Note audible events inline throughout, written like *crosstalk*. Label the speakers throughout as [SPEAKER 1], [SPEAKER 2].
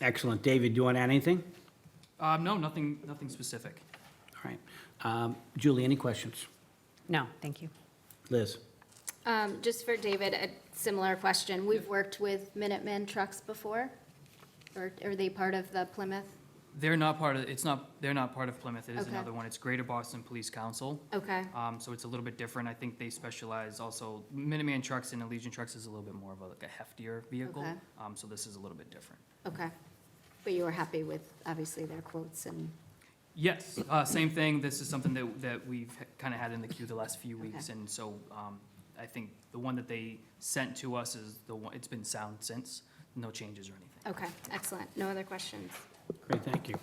[SPEAKER 1] Excellent. David, do you want to add anything?
[SPEAKER 2] Um, no, nothing, nothing specific.
[SPEAKER 1] All right. Um, Julie, any questions?
[SPEAKER 3] No, thank you.
[SPEAKER 1] Liz?
[SPEAKER 4] Um, Just for David, a similar question. We've worked with Minuteman trucks before? Or are they part of the Plymouth?
[SPEAKER 2] They're not part of, it's not, they're not part of Plymouth, it is
[SPEAKER 4] Okay.
[SPEAKER 2] another one, it's Greater Boston Police Council.
[SPEAKER 4] Okay,
[SPEAKER 2] Um, so it's a little bit different, I think they specialize also, Minuteman trucks and Allegiant trucks is a little bit more of a, like a heftier vehicle.
[SPEAKER 4] Okay.
[SPEAKER 2] Um, so this is a little bit different.
[SPEAKER 4] okay. But you were happy with, obviously, their quotes and,
[SPEAKER 2] Yes, uh, same thing, this is something that, that we've kind of had in the queue the last few weeks,
[SPEAKER 4] Okay.
[SPEAKER 2] and so, um, I think the one that they sent to us is the one, it's been sound since, no changes or anything.
[SPEAKER 4] okay, excellent. No other questions?
[SPEAKER 1] Great, thank you.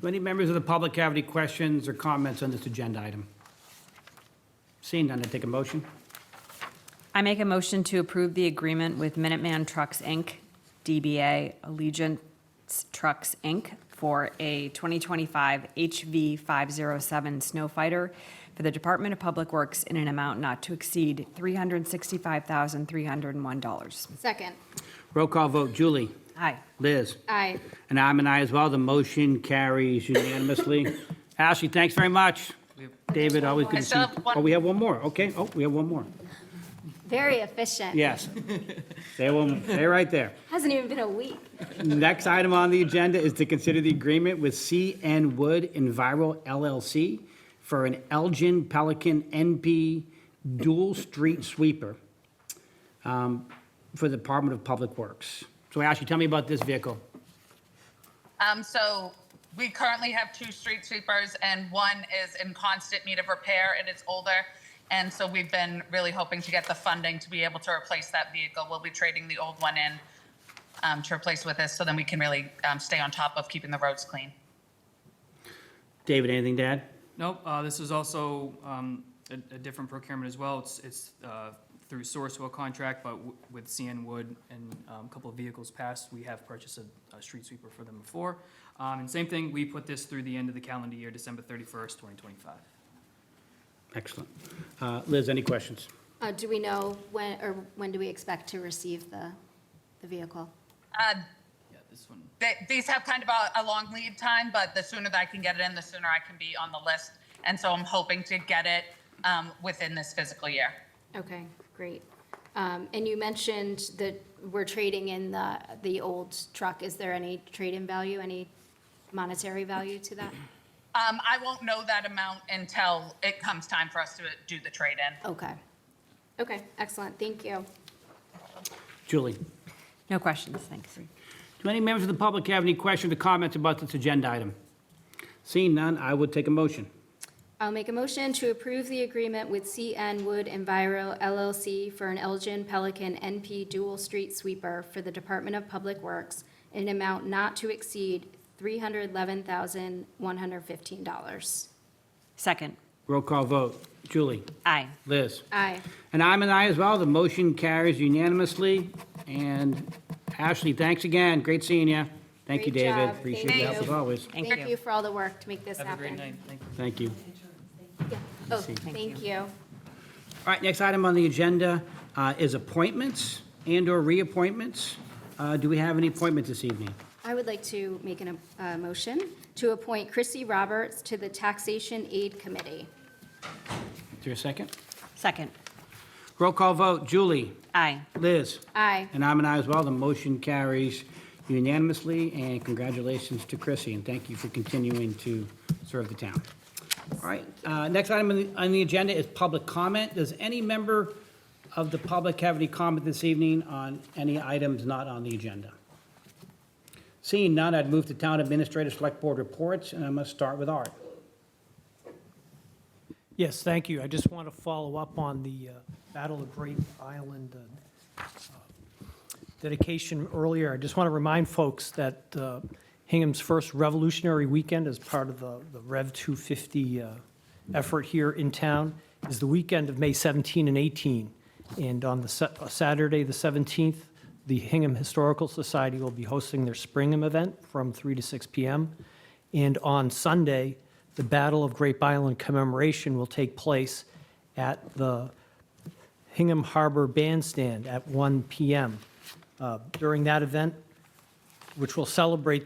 [SPEAKER 1] Do any members of the public have any questions or comments on this agenda item? Seeing none, I take a motion.
[SPEAKER 3] I make a motion to approve the agreement with Minuteman Trucks, Inc., DBA Allegiance Trucks, Inc., for a 2025 HV507 Snow Fighter oh for the Department of Public Works in an amount not to exceed $365,301.
[SPEAKER 4] Second,
[SPEAKER 1] Roll call vote, Julie?
[SPEAKER 3] Aye.
[SPEAKER 1] Liz?
[SPEAKER 4] aye.
[SPEAKER 1] And I'm an aye as well. The motion carries unanimously. Ashley, thanks very much.
[SPEAKER 2] We have-
[SPEAKER 1] David, always good
[SPEAKER 5] I
[SPEAKER 1] to see
[SPEAKER 5] still
[SPEAKER 1] you.
[SPEAKER 5] have one.
[SPEAKER 1] Oh, we have one more, okay. Oh, we have one more.
[SPEAKER 4] Very efficient.
[SPEAKER 5] *laughs*
[SPEAKER 1] Yes. They will, they're right there.
[SPEAKER 4] Hasn't even been a week.
[SPEAKER 1] Next item on the agenda is to consider the agreement with CN Wood Enviro LLC for an Elgin Pelican NP dual street sweeper um, for the Department of Public Works. So Ashley, tell me about this vehicle.
[SPEAKER 5] Um, so we currently have two street sweepers and one is in constant need of repair and it's older. And so we've been really hoping to get the funding to be able to replace that vehicle. We'll be trading the old one in um, to replace with this so then we can really um, stay on top of keeping the roads clean.
[SPEAKER 1] David, anything to add?
[SPEAKER 2] Nope, uh, this is also, um, a, a different procurement as well, it's, it's, uh, through Sourcewell contract, but w- with CN Wood and, um, a couple of vehicles passed, we have purchased a, a street sweeper for them before. Um, and same thing, we put this through the end of the calendar year, December thirty-first, twenty twenty-five.
[SPEAKER 1] Excellent. Uh, Liz, any questions?
[SPEAKER 4] Uh, Do we know when, or when do we expect to receive the, the vehicle?
[SPEAKER 5] Uh,
[SPEAKER 2] Yeah, this one.
[SPEAKER 5] th- these have kind of a, a long lead time, but the sooner that I can get it in, the sooner I can be on the list. And so I'm hoping to get it um, within this fiscal year.
[SPEAKER 4] Okay, great. Um, And you mentioned that we're trading in the, the old truck. Is there any trade-in value, any monetary value to that?
[SPEAKER 5] Um, I won't know that amount until it comes time for us to do the trade-in.
[SPEAKER 4] Okay. Okay, excellent, thank you.
[SPEAKER 1] Julie?
[SPEAKER 3] No questions, thanks.
[SPEAKER 1] Do any members of the public have any questions or comments about this agenda item? Seeing none, I would take a motion.
[SPEAKER 4] I'll make a motion to approve the agreement with CN Wood Enviro LLC for an Elgin Pelican NP dual street sweeper for the Department of Public Works in an amount not to exceed $311,115.
[SPEAKER 3] Second,
[SPEAKER 1] Roll call vote. Julie?
[SPEAKER 3] aye.
[SPEAKER 1] Liz?
[SPEAKER 4] Aye.
[SPEAKER 1] And I'm an aye as well. The motion carries unanimously. And Ashley, thanks again. Great seeing you. Thank you,
[SPEAKER 4] Great
[SPEAKER 1] David.
[SPEAKER 4] job.
[SPEAKER 1] Appreciate
[SPEAKER 4] Thank
[SPEAKER 1] your help
[SPEAKER 4] you.
[SPEAKER 1] as always.
[SPEAKER 3] Thank
[SPEAKER 4] Thank
[SPEAKER 3] you.
[SPEAKER 4] you for all the work to make this happen.
[SPEAKER 2] Have a great night, thank you.
[SPEAKER 1] Thank you.
[SPEAKER 4] Yeah. Oh,
[SPEAKER 1] see.
[SPEAKER 4] thank you.
[SPEAKER 1] All right, next item on the agenda uh, is appointments and/or reappointments. Uh, Do we have any appointments this evening?
[SPEAKER 4] I would like to make an, a motion to appoint Chrissy Roberts to the Taxation Aid Committee.
[SPEAKER 1] Is there a second?
[SPEAKER 3] Second,
[SPEAKER 1] Roll call vote. Julie?
[SPEAKER 3] aye.
[SPEAKER 1] Liz?
[SPEAKER 4] Aye.
[SPEAKER 1] And I'm an aye as well. The motion carries unanimously, and congratulations to Chrissy, and thank you for continuing to serve the town. All right, uh, next item on the- on the agenda is public comment. Does any member of the public have any comment this evening on any items not on the agenda? Seeing none, I'd move to Town Administrator Select Board Reports, and I must start with Art.
[SPEAKER 6] Yes, thank you. I just want to follow up on the uh, Battle of Great Island uh, dedication earlier. I just want to remind folks that uh, Hingham's first Revolutionary Weekend as part of the the Rev 250 uh, effort here in town is the weekend of May 17 and 18. And on the Sa- uh, Saturday, the 17th, the Hingham Historical Society will be hosting their Springham event from 3 to 6 p.m. And on Sunday, the Battle of Grape Island commemoration will take place at the Hingham Harbor Bandstand at 1 p.m. Uh, During that event, which will celebrate